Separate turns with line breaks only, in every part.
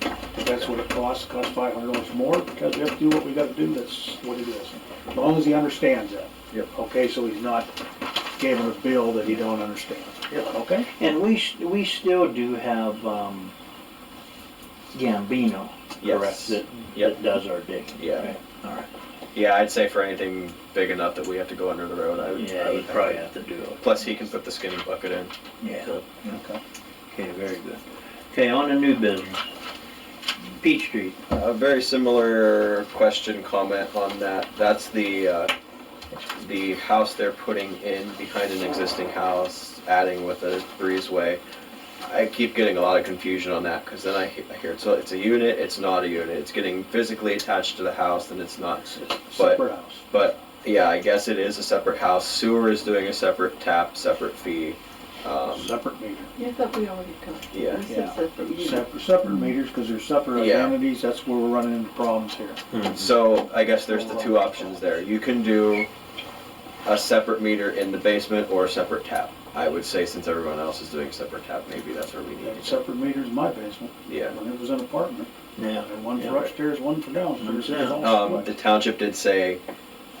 that's what it costs, costs five hundred dollars more, because we have to do what we gotta do, that's what it is. As long as he understands that.
Yep.
Okay, so he's not giving a bill that he don't understand.
Yep.
Okay?
And we, s- we still do have, um, Gambino.
Yes.
That,
Yep.
that does our digging.
Yeah.
right? All right.
Yeah, I'd say for anything big enough that we have to go under the road, I would. I
Yeah,
would
you
think.
probably have to do it.
Plus, he can put the skinny bucket in.
Yeah.
so.
Okay.
Okay, very good. Okay, on to new business. Peach Street.
A very similar question, comment on that. That's the, uh, the house they're putting in behind an existing house, adding with a breezeway. I keep getting a lot of confusion on that, because then I he- I hear, it's a- it's a unit, it's not a unit, it's getting physically attached to the house, then it's not.
Separate house.
But, yeah, I guess it is a separate house. Sewer is doing a separate tap, separate fee. Um,
Separate meter.
Yeah, I thought we already talked.
Yeah.
We said
Yeah.
separate unit.
Separate, separate meters, because they're separate
Yeah.
identities, that's where we're running into problems here.
Hmm. So I guess there's the two options there. You can do a separate meter in the basement or a separate tap. I would say since everyone else is doing separate tap, maybe that's where we need
That
to go.
Separate meters in my basement,
Yeah.
when it was an apartment,
Yeah.
and one
Yeah.
for upstairs, one for downstairs. it was all
Um,
split.
the township did say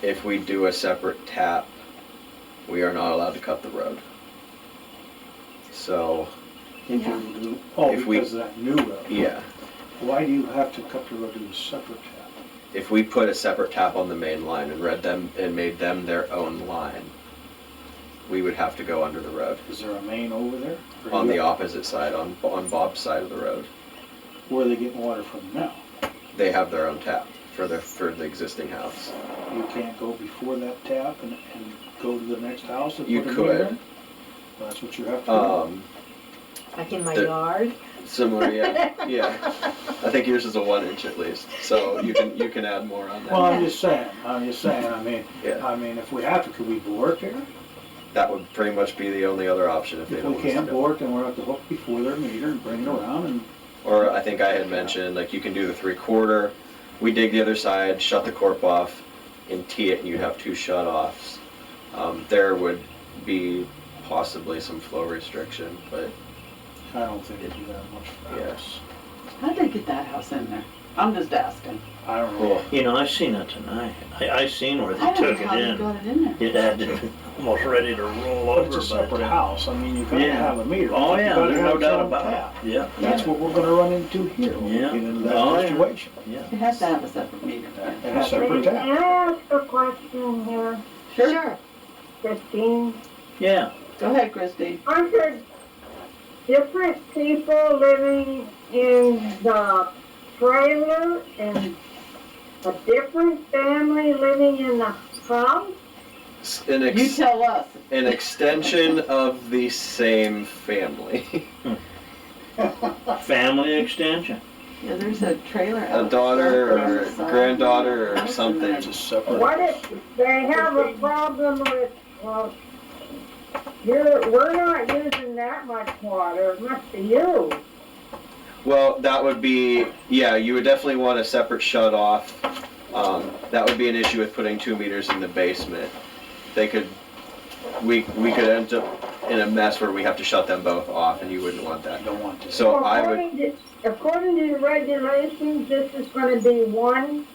if we do a separate tap, we are not allowed to cut the road. So,
If you do, oh,
If we-
because of that new road.
yeah,
Why do you have to cut the road to a separate tap?
if we put a separate tap on the main line and read them and made them their own line, we would have to go under the road
Is there a main over there? Or
on the
you-
opposite side, on, on Bob's side of the road.
Where are they getting water from now?
they have their own tap for the for the existing house.
You can't go before that tap and, and go to the next house and
You
put a meter
could.
in? That's what you have to
Um,
Like in my
The-
yard?
similar, yeah, yeah. I think yours is a one inch at least, so you can you can add more on
do.
that.
Well, I'm just saying, I'm just saying, I mean,
yeah,
I mean, if we have to, could we bore it there?
that would pretty much be the only other option if they
If
don't.
we
want us to
can't
go.
bore it, then we're at the hook before their meter and bring it around and
Or I think I had mentioned like you can do the three quarter. We dig the other side, shut the corp off, and tee it, and you'd have two shut offs. Um, there would be possibly some flow restriction, but
I don't think it'd be that much for us.
How'd they get that house in there? I'm just asking.
I don't know.
cool.
You know, I seen it tonight. I, I seen where they
I don't
took
know
it
how they
in.
got it in there.
It had to be almost ready to roll
But it's
over.
a
by the
separate
time-
house, I mean, you gotta
Yeah.
have a meter.
Oh,
You
yeah,
gotta
there's no
have your
doubt
own
about
tap.
it. Yeah,
That's what we're gonna run into here when we
Yeah.
get into
Oh,
that
yeah.
situation.
yeah.
It has to have a separate meter. yeah.
And a separate
Can
tap.
I ask a question here,
Sure.
Christine?
Yeah,
Go ahead, Christie.
Aren't there different people living in the trailer and a different family living in the house?
S- An ex-
You tell us.
an extension of the same family.
family extension.
Yeah, there's a trailer
A
out.
daughter
front,
or
there's a son.
granddaughter or something.
It's a separate.
What if they have a problem with, well, you're, we're not using that much water, it must be you.
Well, that would be, yeah, you would definitely want a separate shut off. Um, that would be an issue with putting two meters in the basement. They could, we, we could end up in a mess where we have to shut them both off and you wouldn't want
I
that.
don't want to.
So I would,
According to- According to the regulations, this is gonna be one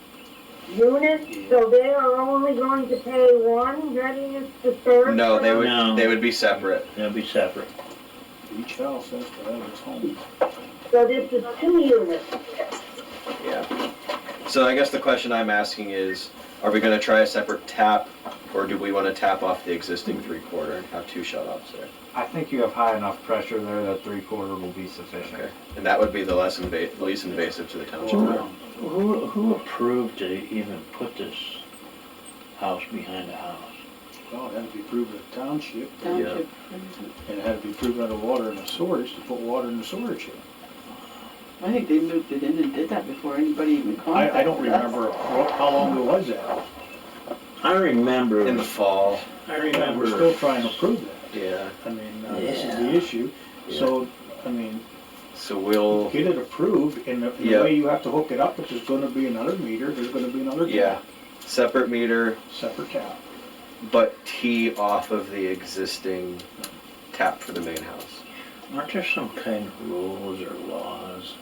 unit, so they are only going to pay one readiness to serve.
no, they
No.
Mm-hmm.
would, they would be separate.
That'd be separate.
Each house has to have its home.
So this is two units.
Yeah. So I guess the question I'm asking is, are we gonna try a separate tap, or do we wanna tap off the existing three-quarter and have two shut-offs there?
I think you have high enough pressure there that three quarter will be sufficient.
Okay. And that would be the less inva- least invasive to the township.
Sure.
room.
Who, who approved to even put this house behind the house?
Well, it had to be proven at township,
Township.
and it had to be proven under water in a storage to put water in the storage here.
I think they moved it in and did that before anybody even contacted us.
I, I don't remember wh- how long ago was that.
I remember.
In the fall,
I
And
remember.
we're still trying to prove that.
yeah.
I mean, uh, this is
Yeah.
the issue. So, I mean,
So we'll,
get it approved, and the, the
Yeah.
way you have to hook it up, which is gonna be another meter, there's gonna be another
yeah,
tap,
separate meter,
separate tap.
but tee off of the existing tap for the main house.
Aren't there some kind of rules or laws